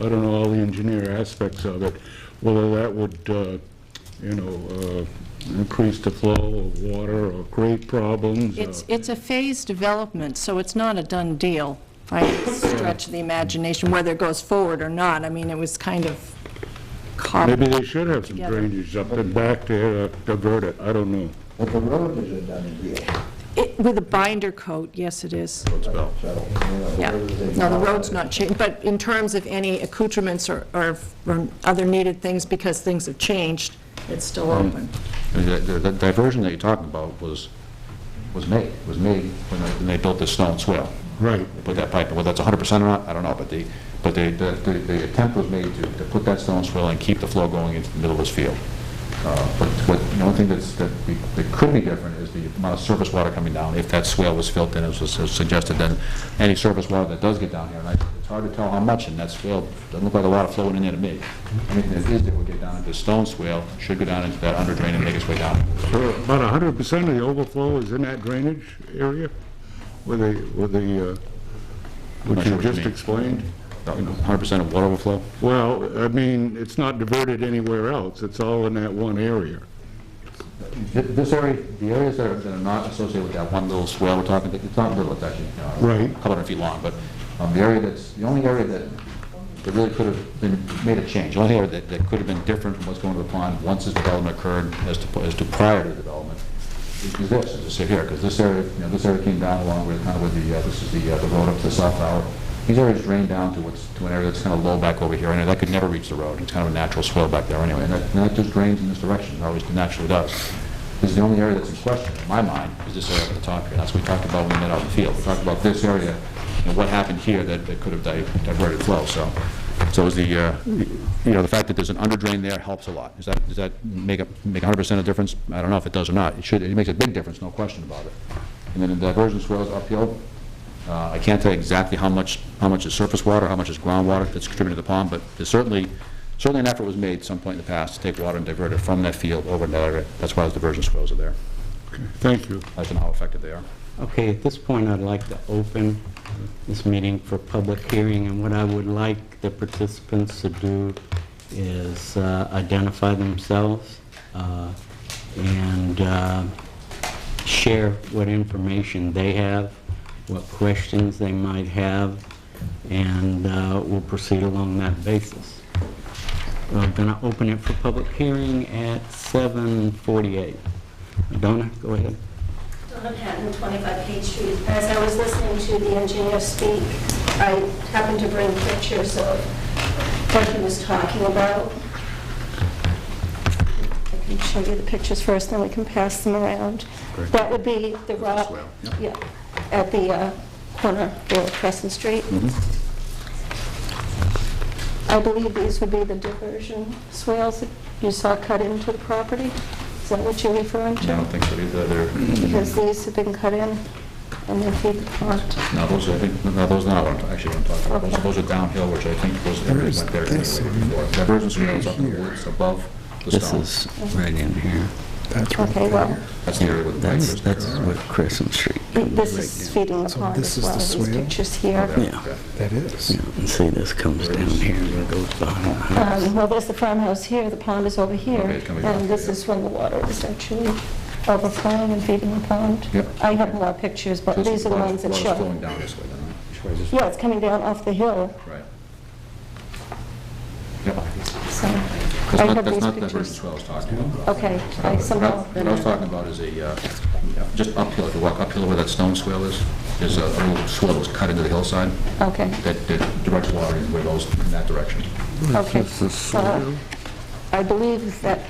I don't know all the engineer aspects of it, whether that would, uh, you know, uh, increase the flow of water or create problems. uh, Oh, It's, it's a phased development, so it's not a done deal by any stretch of the imagination, whether it goes forward or not. I mean, it was kind of Maybe carved. they should have some Together. drainage up and back to uh, divert it, I don't know. But the road is a done deal. It- With a binder coat, yes, it is. So, you know, the Yeah. road is a- No, the road's not changed, but in terms of any accoutrements or, or or other needed things, because things have changed, it's still Hmm. open. The the- the diversion that you're talking about was, was made, was made when they- when they built the stone swell. Right. They Put that pipe, in. whether that's 100% or not, I don't know, but the, but the, the- the the attempt was made to, to put that stone swell and keep the flow going into the middle of this field. Uh, But what, the only thing that's, that we- that could be different is the amount of surface water coming down, if that swale was filled in, as was suggested, then any surface water that does get down here, and I- it's hard to tell how much in that swale, doesn't look like a lot of flowing in there to me. Anything that is, that would get down into the stone swale, should go down into that under drain and make its way down. So About 100% of the overflow is in that drainage area with the, with the, uh, Not which sure you what you just mean. explained? Hundred percent of water overflow? Well, I mean, it's not diverted anywhere else, it's all in that one area. This area, the areas that are that are not associated with that one little swell we're talking, it's not little, it's actually, uh, you know, Right. a couple hundred feet long, but um, the area that's, the only area that, that really could have been, made a change, the only area that, that could have been different from what's going to the pond once this development occurred as to, as to prior to development, is is this, as I say here, because this area, you know, this area came down along with, kind of with the, uh, this is the, uh, the road up to the south tower. These areas drain down to what's, to an area that's kind of low back over here, and that could never reach the road. It's kind of a natural swell back there anyway, and that, and that just drains in this direction, it always naturally does. This is the only area that's in question, in my mind, is this area at the top here. That's what we talked about when we met out in the field. We talked about this area, and what happened here that, that could have di- diverted flow, so. So is the, uh, you know, the fact that there's an under drain there helps a lot. Does that, does that make a, make hundred percent of difference? I don't know if it does or not. It should, it makes a big difference, no question about it. And then the diversion swells uphill, uh, I can't tell you exactly how much, how much is surface water, how much is groundwater that's contributed to the pond, but there's certainly, certainly an effort was made at some point in the past to take water and divert it from that field over to that area. That's why those diversion swells are there. Thank you. I don't know how effective they are. Okay, at this point, I'd like to open this meeting for public hearing, and what I would like the participants to do is uh, identify themselves uh, and uh, share what information they have, what questions they might have, and uh, we'll proceed along that basis. I'm going to open it for public hearing at 7:48. Donna, go ahead. Donna Patton, 25 Page Street. As I was listening to the engineer speak, I happened to bring pictures of what he was talking about. I can show you the pictures first, then we can pass them around. That would be the rock, yeah, at the uh, corner of Crescent Street. Mm-hmm. I believe these would be the diversion swales that you saw cut into the property. Is that what you're referring to? think so either. They're, because these have been cut in and they feed the pond. no, those, I think, no, those are not what I'm, actually what I'm talking about. Those- Those are downhill, which I think was, everybody went there anyway before. Diversion swells up in the woods above the This stone. is right in here. Okay, well, That's the area where the pipe That's, is. that's what Crescent Street, this is feeding the pond this is as well, the these swale? pictures Okay. here. That is. you know, and see this comes down here and goes behind the house. Um, Well, there's the farmhouse here, the pond is over here, Okay, it's coming down. and this is when the water is actually overflowing and feeding the pond. Yep. I have more pictures, but these are the ones that Water's show. flowing down this way, then. Which way is this? Yeah, it's coming down off the hill, Right. Yep. so That's I not, have that's these not the version pictures. swell I was talking about. Okay, I What I- somehow... what I was talking about is a, uh, just uphill, if you walk uphill where that stone swell is, there's a a little swell that's cut into the hillside Okay. that that directs water in where goes in that direction. Okay, so I believe that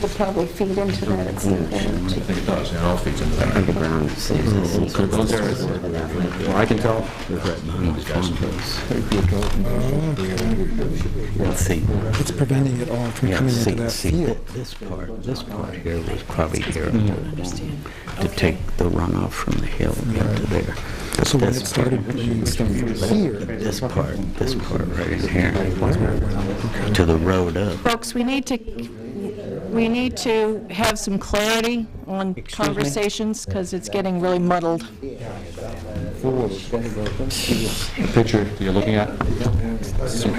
would probably feed into that at some point. I think it does, and it all feeds into that. Underground, see this is So Oh, those areas where- where I can tell, right behind the farmhouse. Let's see, It's preventing it all from yeah, coming into see, that see, field. this part, this part here was probably here to take the runoff from the hill into there. But So when this it part- started bringing stuff from here, This part, this part right in here, to the road up. Folks, we need to, we need to have some clarity on me? conversations, because it's getting really muddled. the picture that you're looking at, It's